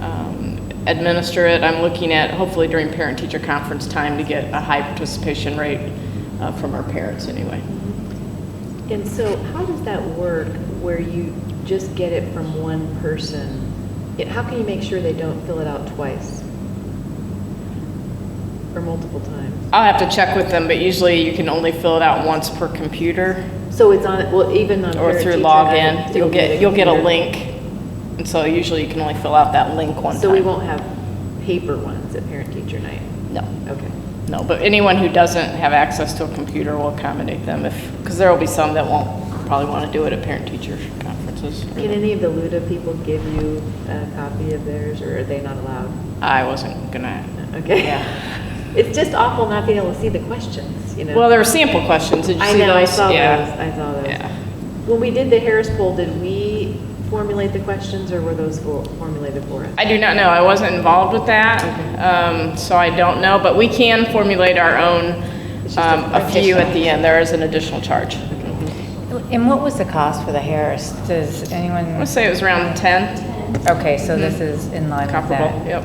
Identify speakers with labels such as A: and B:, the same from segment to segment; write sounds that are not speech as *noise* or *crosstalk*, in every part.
A: um, administer it. I'm looking at, hopefully during parent-teacher conference time, to get a high participation rate uh, from our parents anyway.
B: And so how does that work where you just get it from one person? It- How can you make sure they don't fill it out twice? Or multiple times?
A: I'll have to check with them, but usually you can only fill it out once per computer
B: So it's on, well, even on.
A: or
B: parent
A: through
B: teacher, I-
A: login.
B: it'll
A: You'll
B: be the
A: get, you'll get a
B: computer.
A: link, and so usually you can only fill out that link one time.
B: So we won't have paper ones at parent teacher night?
A: No.
B: Okay.
A: No, but anyone who doesn't have access to a computer will accommodate them if, because there will be some that won't probably want to do it at parent-teacher conferences.
B: Can any of the Luda people give you a copy of theirs or are they not allowed?
A: I wasn't gonna,
B: Okay.
A: yeah.
B: *laughs* It's just awful not being able to see the questions, you know?
A: Well, there were sample questions, did you
B: I
A: see those?
B: know, I saw those,
A: Yeah.
B: I saw
A: Yeah.
B: those. When we did the Harris poll, did we formulate the questions or were those for- formulated for us?
A: I do not know, I wasn't involved with that, um, so I don't know, but we can formulate our own,
B: It's just a
A: um, a few at the end, there is an additional charge. I'm
C: And what was the cost for the Harris? Does
A: gonna
C: anyone,
A: say it was around 10,
C: okay, so
B: Hmm.
C: this is in line with
A: comparable,
C: that.
A: yep.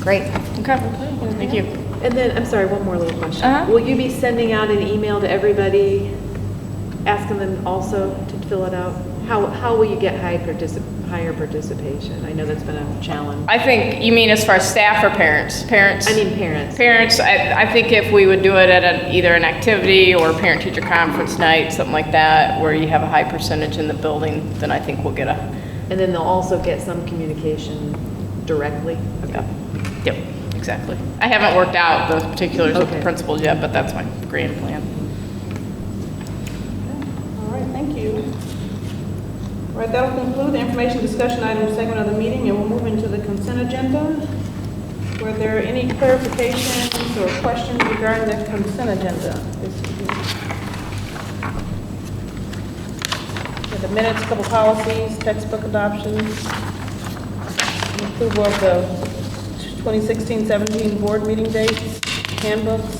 C: Great.
A: Okay, thank you.
B: And then, I'm sorry, one more little question.
A: Uh-huh.
B: Will you be sending out an email to everybody, asking them also to fill it out? How, how will you get high particip, higher participation? I know that's been a challenge.
A: I think, you mean as far as staff or parents? Parents?
B: I mean, parents.
A: Parents, I, I think if we would do it at an, either an activity or parent-teacher conference night, something like that, where you have a high percentage in the building, then I think we'll get a,
B: And then they'll also get some communication directly?
A: yeah. Yep, exactly. I haven't worked out the particulars of the
B: Okay.
A: principles yet, but that's my grand plan.
D: All right, thank you. All right, that'll conclude the information discussion item segment of the meeting, and we'll move into the consent agenda. Were there any clarifications or questions regarding the consent agenda? this evening? For The minutes, couple policies, textbook adoptions, and approval of the 2016-17 board meeting dates, handbooks.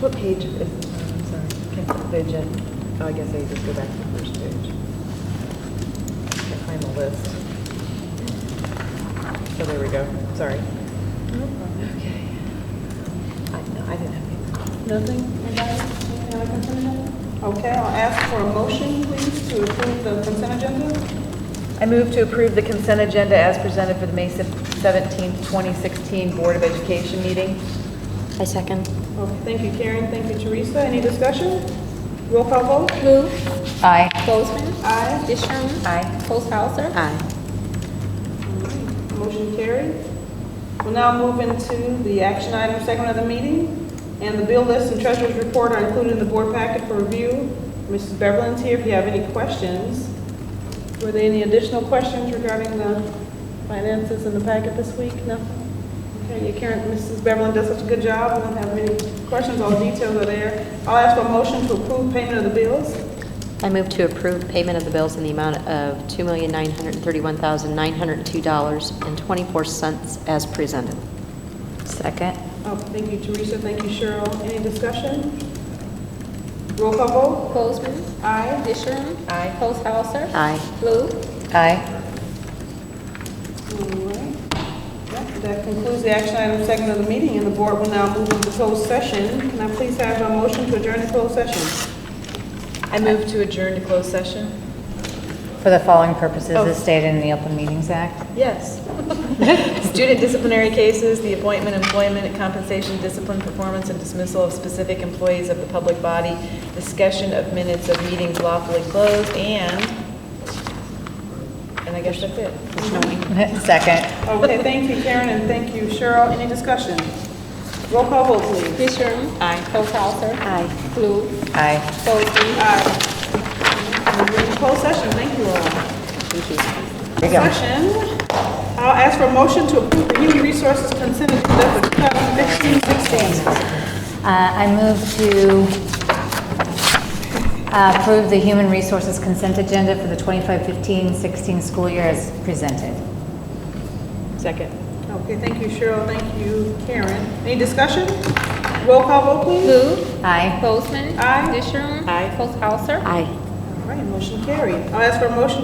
B: What page is, I'm sorry, consent agenda? Oh, I guess I just go back to the first page. Can't find the list. Oh, there we go, sorry. Okay. I, no, I didn't have any.
D: Nothing? Anybody? Any consent agenda? Okay, I'll ask for a motion, please, to approve the consent agenda.
B: I move to approve the consent agenda as presented for the May 17th, 2016 Board of Education meeting.
E: I second.
D: Okay, thank you, Karen, thank you, Teresa. Any discussion? Roll call vote?
F: Who?
C: Aye.
F: Bozeman.
D: Aye.
F: Disharm.
C: Aye.
F: Posthauser.
E: Aye.
D: Motion carried. We'll now move into the action item segment of the meeting, and the bill list and treasurer's report are included in the board packet for review. Mrs. Beverlin's here if you have any questions. Were there any additional questions regarding the finances in the packet this week? Nothing? Okay, your current, Mrs. Beverlin does such a good job, I don't have any questions, all the details are there. I'll ask for a motion to approve payment of the bills.
E: I move to approve payment of the bills in the amount of $2,931,902.24 as presented.
C: Second.
D: Oh, thank you, Teresa, thank you, Cheryl. Any discussion? Roll call vote?
F: Bozeman.
D: Aye.
F: Disharm.
C: Aye.
F: Posthauser.
E: Aye.
F: Who?
C: Aye.
D: Alright. That that concludes the action item segment of the meeting, and the board will now move into closed session. Can I please have a motion to adjourn the closed session?
B: I move to adjourn to closed session.
C: For the following purposes as stated in the Open Meetings Act. *laughs*
B: Yes. *laughs* Student disciplinary cases, the appointment, employment, compensation, discipline, performance, and dismissal of specific employees of the public body, discussion of minutes of meetings lawfully closed, and, and I guess that's it.
C: Second.
D: Okay, thank you, Karen, and thank you, Cheryl. Any discussion? Roll call vote, please.
F: Disharm. Aye. Posthauser. Aye. Who?
C: Aye.
F: Bozeman.
D: Aye. We're in closed session, thank you all. Thank you. Session, I'll ask for a motion to approve the human resources consent agenda for 2015-16.
C: Uh, I move to uh, approve the Human Resources Consent Agenda for the 2515-16 school year as presented.
B: Second.
D: Okay, thank you, Cheryl, thank you, Karen. Any discussion? Roll call vote, please.
F: Who?
C: Aye.
F: Bozeman.
D: Aye.
F: Disharm. Aye. Posthauser.
E: Aye.
D: All right, motion carried. I'll ask for a motion to